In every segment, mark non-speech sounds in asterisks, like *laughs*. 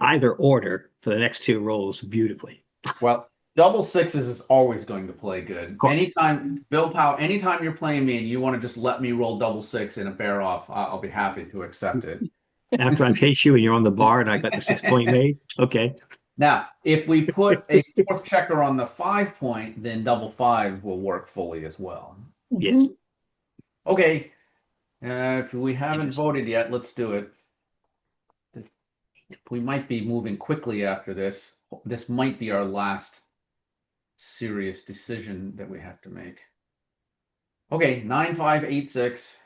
either order for the next two rolls beautifully. Well, double sixes is always going to play good. course. Anytime, Bill Powell, anytime you're playing me and you want to just let me roll double six in a bear off, I- I'll be happy to accept it. After I case you and you're on the bar and I got the six point made, okay. Now, if we put a fourth checker on the five point, then double fives will work fully as well. Yes. Okay. Uh, if we haven't Interesting. voted yet, let's do it. This- We might be moving quickly after this. This might be our last serious decision that we have to make. Okay, nine, five, eight, six.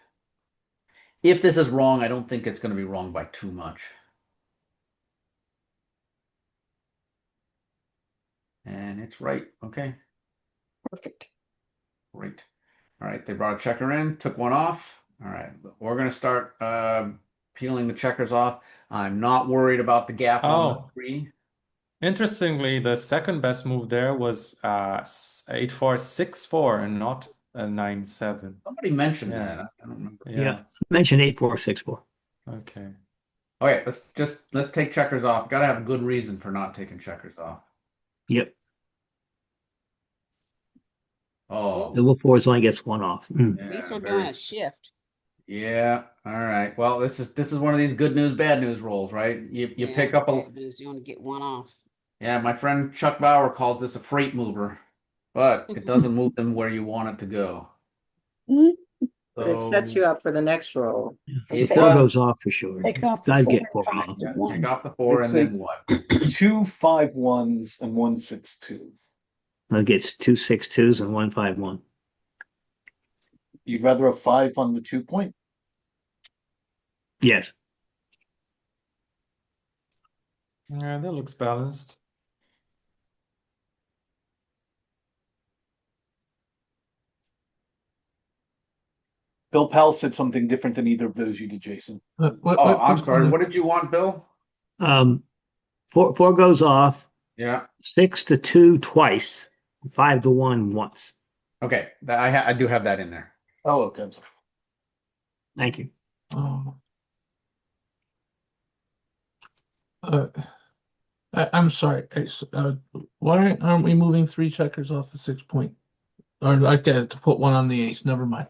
If this is wrong, I don't think it's going to be wrong by too much. And it's right. Okay. Perfect. Great. All right, they brought a checker in, took one off. All right, we're gonna start uh, peeling the checkers off. I'm not worried about the gap on the Oh. three. Interestingly, the second best move there was uh s- eight four six four and not uh, nine seven. Somebody mentioned Yeah. that. I I don't remember. Yeah. Mention eight, four, six, four. Okay. All right, let's just let's take checkers off. Gotta have a good reason for not taking checkers off. Yep. Oh, Double fours only gets one off. Mm. yeah, At least we're very doing a shift. Yeah. All right. Well, this is this is one of these good news, bad news rolls, right? You you Yeah, pick up a bad news, You only get one off. Yeah, my friend Chuck Bauer calls this a freight mover, but *laughs* it doesn't move them where you want it to go. Mhm. But it Mm-hmm. sets So you up for the next roll. it Four does. goes off for sure. Take off the I'd four get and four five off. to Take one. off the four and It's then like- what? two five ones and one six two. It gets two six twos and one five one. You'd rather a five on the two point? Yes. Yeah, that looks balanced. Bill Powell said something different than either of those you did, Jason. Oh, I'm sorry. What did you want, Bill? Um, four, four goes off, Yeah. six to two twice, five to one once. Okay. That I ha I do have that in there. Oh, okay. I'm sorry. Thank you. Oh. Uh, I, I'm sorry. I s uh, why aren't we moving three checkers off the six point? Or I get it to put one on the ace. Never mind.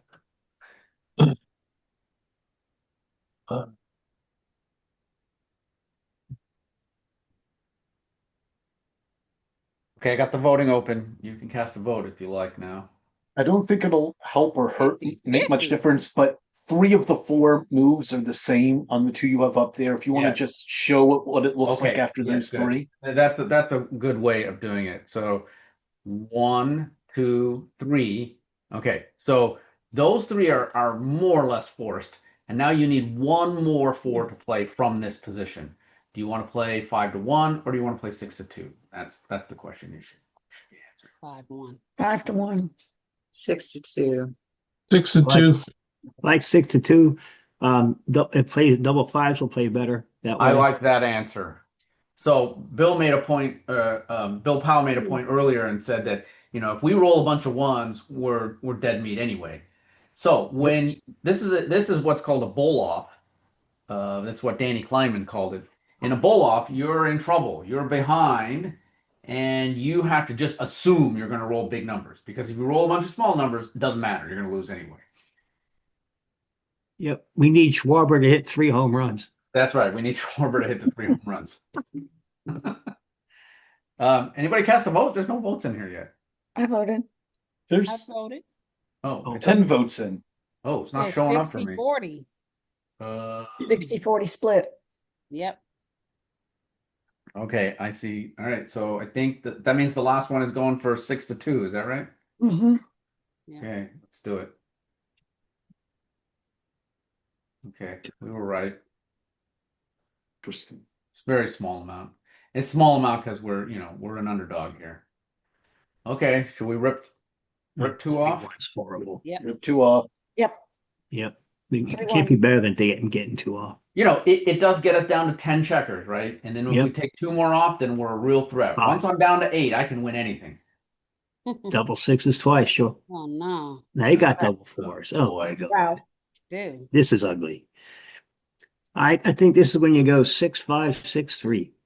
Uh, Okay, I got the voting open. You can cast a vote if you like now. I don't think it'll help or hurt, Fifty, make much fifty. difference, but three of the four moves are the same on the two you have up there. If you want Yeah. to just show what, what it looks like Okay, after yeah, those good. three. Uh, That's a, that's a good way of doing it. So one, two, three. Okay, so those three are are more or less forced, and now you need one more four to play from this position. Do you want to play five to one, or do you want to play six to two? That's that's the question you should. should be answering. Five, one. Five to one. Six to two. six and Like- two. Like six to two, um, dou- it plays double fives will play better that way. I like that answer. So Bill made a point. Uh, um, Bill Powell made a point earlier and said that you know if we roll a bunch of ones, we're we're dead meat anyway. So when this is a, this is what's called a bowl off. Uh, that's what Danny Kleinman called it. In a bowl off, you're in trouble. You're behind, and you have to just assume you're going to roll big numbers because if you roll a bunch of small numbers, it doesn't matter. You're going to lose anyway. Yep. We need Schwarber to hit three home runs. That's right. We need *laughs* Schwarber to hit the three home runs. *laughs* um, anybody cast a vote? There's no votes in here yet. I voted. I There's voted. Oh, Oh, it ten doesn't- votes in. oh, it's not Says showing up for 60, me. Forty, Uh, Mm. 60 40 split. yep. *laughs* okay, I see. All right, so I think that that means the last one is going for six to two. Is that right? Mm-hmm. Yeah. Okay, let's do it. Okay, we were right. Interesting. It's a very small amount. It's small amount because we're you know we're an underdog here. Okay, should we rip rip two Three off? ones horrible. You have two off. Yep. We Three it can't be better than getting, getting two off. you know, it, it does get us down to 10 checkers, right? And then if we Yep. take two more off, then we're a real threat. Five. Once I'm down to eight, I can win anything. Double sixes twice, sure. Oh, no, Now you got double fours. Oh, boy. my God. Wow. dude. This is ugly. I, I think this is when you go six, five, six, three.